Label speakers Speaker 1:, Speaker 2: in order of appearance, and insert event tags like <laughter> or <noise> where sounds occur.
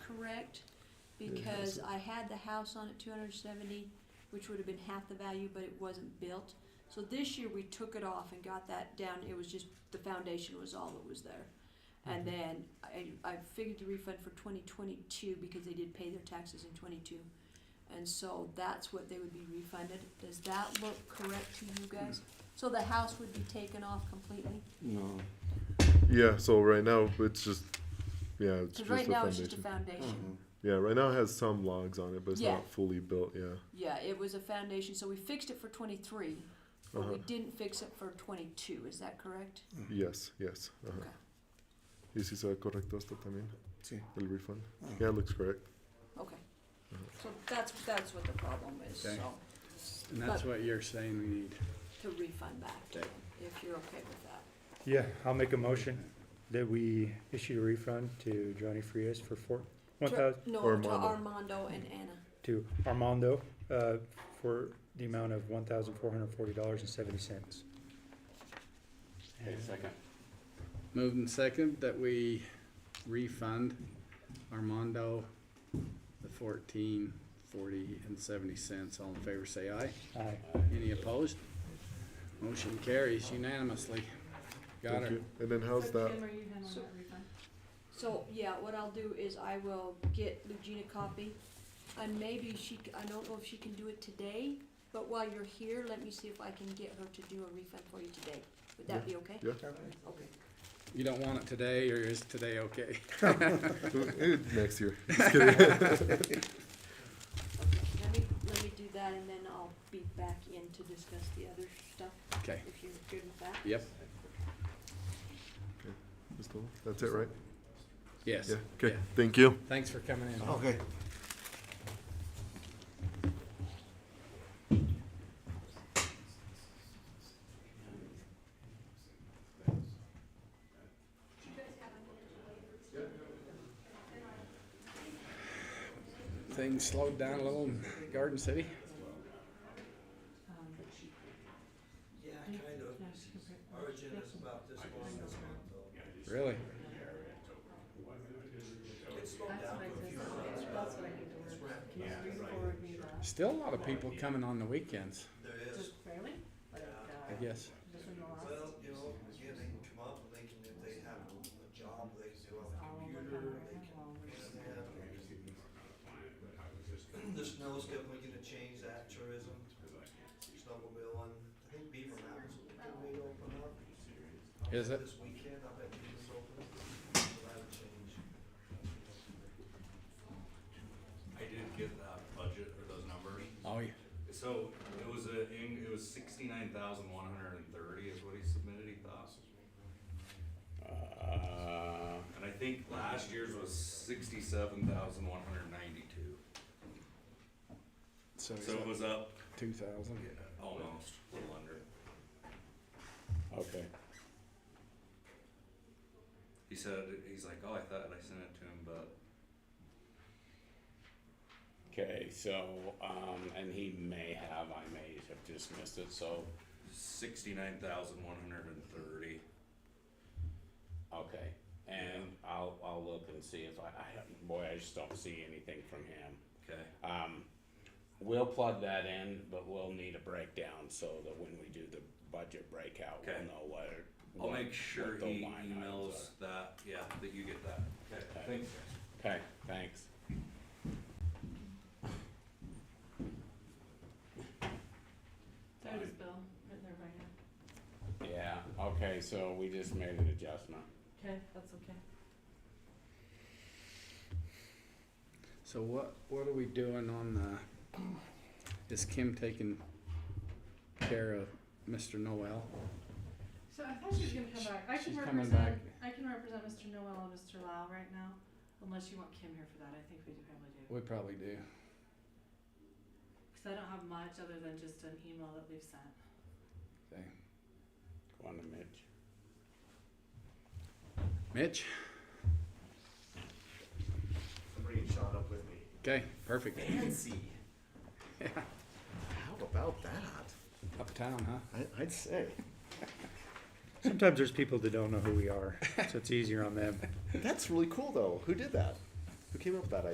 Speaker 1: correct, because I had the house on at two hundred and seventy, which would have been half the value, but it wasn't built. So this year, we took it off and got that down, it was just, the foundation was all that was there. And
Speaker 2: Mm-hmm.
Speaker 1: then I, I figured the refund for twenty twenty-two, because they did pay their taxes in twenty-two. And so that's what they would be refunded, does that look correct to you
Speaker 2: Mm.
Speaker 1: guys? So the house would be taken off completely?
Speaker 3: No.
Speaker 2: Yeah, so right now it's just yeah, it's
Speaker 1: Because
Speaker 2: just
Speaker 1: right
Speaker 2: the
Speaker 1: now, it's
Speaker 2: foundation.
Speaker 1: just a
Speaker 4: Mm-hmm.
Speaker 1: foundation.
Speaker 2: yeah, right now it has some logs on it, but it's
Speaker 1: Yeah.
Speaker 2: not fully built. Yeah.
Speaker 1: Yeah, it was a foundation, so we fixed it for twenty-three, but we didn't fix it for twenty-two, is that correct?
Speaker 2: Yes, yes. Uh-huh.
Speaker 1: Okay.
Speaker 2: ¿Y si se ve correcto esto también?
Speaker 3: Sí.
Speaker 2: El refund.
Speaker 3: Ah.
Speaker 2: Yeah, it looks correct.
Speaker 1: Okay. So that's, that's what the problem is,
Speaker 5: Okay.
Speaker 1: so,
Speaker 5: And that's
Speaker 1: But-
Speaker 5: what you're saying we need.
Speaker 1: to refund back, to
Speaker 5: Okay.
Speaker 1: them, if you're okay with that.
Speaker 6: Yeah, I'll make a motion that we issue a refund to Johnny Frias for four, one
Speaker 1: To-
Speaker 6: thousand,
Speaker 1: No, to
Speaker 2: Armando.
Speaker 1: Armando and Anna,
Speaker 6: to Armando, uh, for the amount of one thousand four hundred forty dollars and seventy cents.
Speaker 5: Moved and second that we refund Armando the fourteen, forty and seventy cents. All in favor, say aye.
Speaker 6: Aye.
Speaker 5: Any opposed? Motion carries unanimously. Got
Speaker 2: Thank
Speaker 5: her.
Speaker 2: you. And then how's that?
Speaker 7: Kim, are you done on
Speaker 1: So-
Speaker 7: that refund?
Speaker 1: so, yeah, what I'll do is I will get Lugina a copy, and maybe she, c- I don't know if she can do it today, but while you're here, let me see if I can get her to do a refund for you today, would that be okay?
Speaker 2: Yeah.
Speaker 1: Okay.
Speaker 5: You don't want it today, or is
Speaker 2: <laughs>
Speaker 5: today okay?
Speaker 2: Eh, <laughs> Next year.
Speaker 1: Let me, let me do that and then I'll be back in to discuss the other stuff,
Speaker 5: Okay,
Speaker 1: if you're good with that.
Speaker 5: yep,
Speaker 2: That's all? That's it, right?
Speaker 5: yes.
Speaker 2: Yeah. Okay.
Speaker 5: Yeah.
Speaker 2: Thank you.
Speaker 5: Thanks for coming
Speaker 4: Oh,
Speaker 5: in.
Speaker 3: Okay.
Speaker 5: Things slowed down a little in Garden City.
Speaker 7: Um,
Speaker 4: Yeah, kind of.
Speaker 7: no, she can print-
Speaker 4: Origin is about this long this month, though.
Speaker 5: Really?
Speaker 4: It slowed
Speaker 7: That's
Speaker 4: down
Speaker 7: what I
Speaker 4: to a
Speaker 7: said,
Speaker 4: few
Speaker 7: that's what I need to work. Can you read forward me that?
Speaker 5: Still a lot of people coming on the weekends,
Speaker 4: There is,
Speaker 7: Just barely, like,
Speaker 5: I
Speaker 7: uh,
Speaker 5: guess.
Speaker 7: just in the last,
Speaker 4: well, you know, yeah, they can come up, they can, if they have a job, they can do on the
Speaker 7: all over the
Speaker 4: computer,
Speaker 7: country,
Speaker 4: they can.
Speaker 7: all over the
Speaker 4: yeah, yeah. The snow's definitely gonna change that tourism, snowmobiling, I think Beaver Mountain's gonna open up.
Speaker 5: Is it?
Speaker 4: This weekend, I bet Beaver's open, so that'll change.
Speaker 8: I did get that budget or those numbers.
Speaker 5: Oh, yeah.
Speaker 8: So it was a, in- it was sixty-nine thousand one hundred and thirty is what he submitted, he thought. And I think last year's was sixty-seven thousand one hundred ninety-two.
Speaker 5: So
Speaker 8: So it was up
Speaker 5: two thousand?
Speaker 8: almost, a little under.
Speaker 5: Okay.
Speaker 8: He said, he's like, oh, I thought I sent it to him, but
Speaker 9: Okay, so, um, and he may have, I may have just missed it, so,
Speaker 8: sixty-nine thousand one hundred and thirty.
Speaker 9: okay. And I'll, I'll look and see if I, I, don't- boy, I just don't see anything from him.
Speaker 8: Okay,
Speaker 9: Um, we'll plug that in, but we'll need a breakdown so that when we do the budget breakout, we'll
Speaker 8: Okay.
Speaker 9: know what.
Speaker 8: I'll
Speaker 9: what-
Speaker 8: make sure
Speaker 9: what the
Speaker 8: he
Speaker 9: line items
Speaker 8: emails that, yeah, that you get that. Okay,
Speaker 9: Okay.
Speaker 8: thanks guys.
Speaker 9: are. Okay, thanks.
Speaker 7: there's Bill, right there right now.
Speaker 9: Yeah, okay, so we just made an adjustment.
Speaker 7: Okay, that's okay.
Speaker 5: So what, what are we doing on the, is Kim taking care of Mr. Noel?
Speaker 7: So I thought she was gonna come back. I can
Speaker 5: She's coming
Speaker 7: represent,
Speaker 5: back.
Speaker 7: I can represent Mr. Noel and Mr. Lau right now, unless you want Kim here for that. I think we do probably do.
Speaker 5: We probably do.
Speaker 7: Cause I don't have much other than just an email that we've sent.
Speaker 5: Okay.
Speaker 9: Go on to Mitch.
Speaker 5: Mitch?
Speaker 10: Somebody shot up with me.
Speaker 5: Okay, perfect.
Speaker 10: Fancy. How about that?
Speaker 5: Uptown, huh?
Speaker 10: I, I'd say.
Speaker 6: Sometimes there's people that don't know who we are, so it's easier on them.
Speaker 10: That's really cool, though. Who did that? Who came up with that idea?